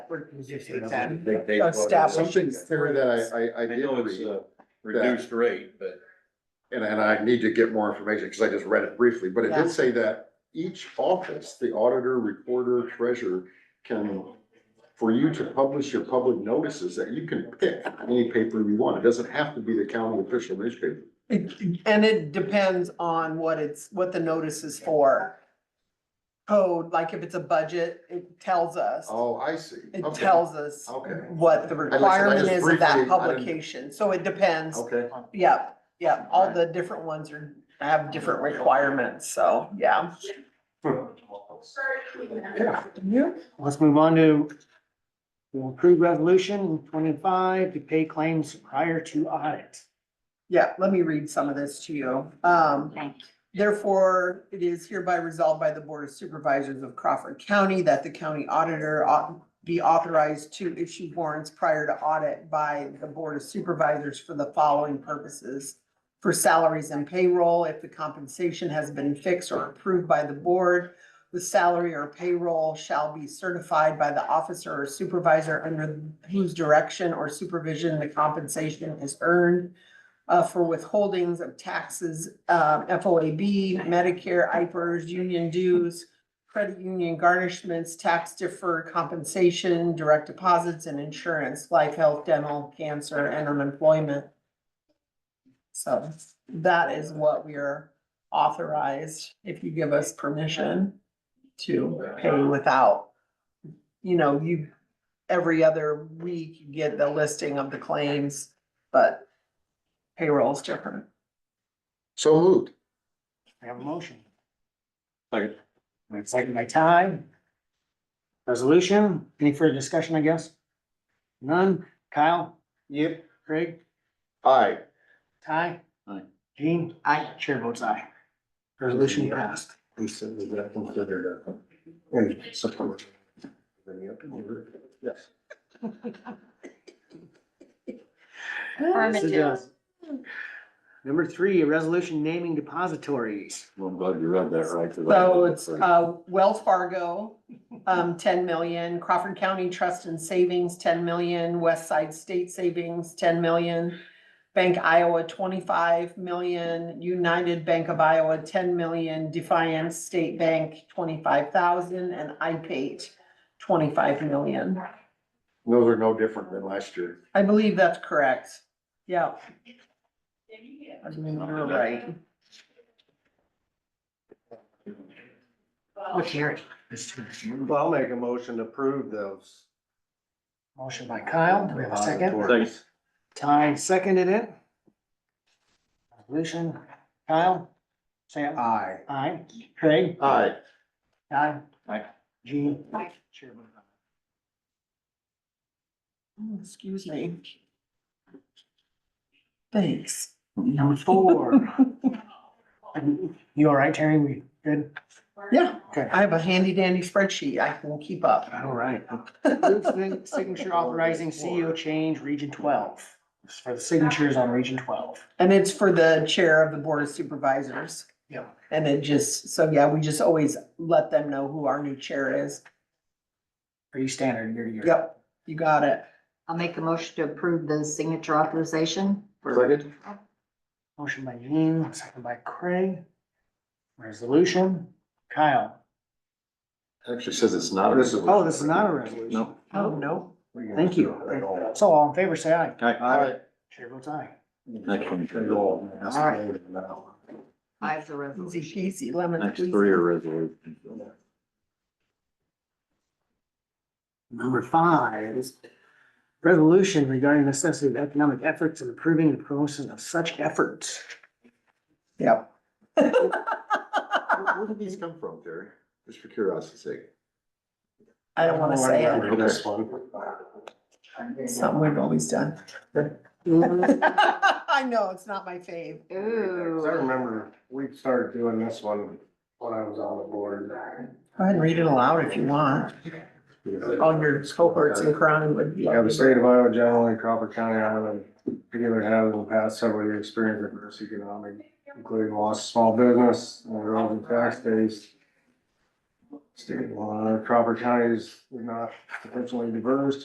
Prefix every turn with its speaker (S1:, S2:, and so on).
S1: What position is that?
S2: They- they-
S3: Uh, staff.
S4: Something there that I, I, I
S2: I
S4: did
S2: know it's uh,
S4: read,
S2: a reduced rate, but
S4: and, and I need to get more information, because I just read it briefly, but it
S3: Yeah.
S4: did say that each office, the auditor, recorder, treasurer, can, for you to publish your public notices, that you can pick any paper you want, it doesn't have to be the county official newspaper.
S3: It- And it depends on what it's, what the notice is for. Code, like if it's a budget, it tells us,
S4: Oh, I see.
S3: it
S4: Okay.
S3: tells us
S4: Okay.
S3: what the
S4: said, I
S3: requirement
S4: just
S3: is of that
S4: briefly- I didn't-
S3: publication, so it depends.
S4: Okay,
S3: Yeah, yeah, all
S4: Right.
S3: the different ones are, have different requirements, so, yeah.
S4: yeah,
S5: Let's move on to to approve resolution twenty-five to pay claims prior to audit.
S3: Yeah, let me read some of this to you. Um, Therefore, it is hereby resolved by the Board of Supervisors of Crawford County that the county auditor ought be authorized to issue warrants prior to audit by the Board of Supervisors for the following purposes. For salaries and payroll, if the compensation has been fixed or approved by the board, the salary or payroll shall be certified by the officer or supervisor under whose direction or supervision the compensation is earned uh, for withholdings of taxes, um, FOAB, Medicare, IPERS, union dues, credit union garnishments, tax deferred compensation, direct deposits and insurance, life, health, dental, cancer, and unemployment. So that is what we are authorized, if you give us permission to pay without, you know, you, every other week you get the listing of the claims, but payroll is different.
S4: so moved.
S5: I have a motion.
S2: Second.
S5: And Second by Ty. Resolution, any further discussion, I guess? None. Kyle? Yep. Craig?
S4: Aye.
S5: Ty?
S2: Aye.
S5: Gene? Aye. Chair votes aye. Resolution passed.
S4: We said was that considered a, in support? Any up in here? Yes.
S5: This is, uh, Number three, a resolution naming depositories.
S2: well, I'm glad you read that right. 'cause I-
S3: So it's uh, Wells Fargo, um, ten million, Crawford County Trust and Savings, ten million, West Side State Savings, ten million, Bank Iowa, twenty-five million, United Bank of Iowa, ten million, Defiance State Bank, twenty-five thousand, and IPate, twenty-five million.
S4: Those are no different than last year.
S3: I believe that's correct. Yeah. I believe you're right.
S5: Look here.
S6: Well, I'll make a motion to approve those.
S5: Motion by Kyle, do we have a second?
S2: Second.
S5: Ty seconded it. Resolution, Kyle? Sam?
S6: Aye.
S5: Aye. Craig?
S4: Aye.
S5: Aye.
S2: Aye.
S5: Gene?
S1: Aye.
S5: Chair votes aye.
S3: Oh, Excuse me. Thanks.
S5: Number four. You all right, Terry? We good?
S3: Yeah,
S5: Okay.
S3: I have a handy dandy spreadsheet. I can keep up.
S5: All right. Move to the Signature authorizing CEO change region twelve. This is for the signatures on region twelve.
S3: And it's for the chair of the board of supervisors.
S5: Yeah.
S3: And it just, so yeah, we just always let them know who our new chair is.
S5: Are you standard year to year?
S3: Yep, you got it.
S7: I'll make a motion to approve the signature authorization.
S4: Second?
S5: Motion by Jean, second by Craig. Resolution, Kyle.
S4: Actually says it's not. a-
S5: Oh, this is not a resolution.
S2: No.
S3: Oh, no.
S5: Thank you. So all in favor, say aye.
S2: Aye.
S4: Aye.
S5: Chair votes aye.
S2: Next one.
S4: All right.
S7: Five the resolution.
S3: Easy peasy, lemon
S2: Next
S3: squeezy.
S2: three are resolutions.
S5: Number five is resolution regarding necessity of economic efforts and approving the promotion of such efforts.
S3: Yep.
S4: Where where did these come from, Terry? Just for curiosity's sake.
S3: Oh, I don't wanna say it.
S4: Okay.
S6: This one.
S3: It's Something we've always done. I know, it's not my fave.
S6: Cause I
S7: Ooh,
S6: remember we started doing this one when I was on the board.
S3: Go ahead and read it aloud if you want. All your cohorts in Crown would.
S6: Yeah, the state of Iowa generally, Crawford County, Iowa, in particular have in the past several years experienced adverse economic, including loss of small business, and growth in tax base. state law. Crawford County is not potentially diverse,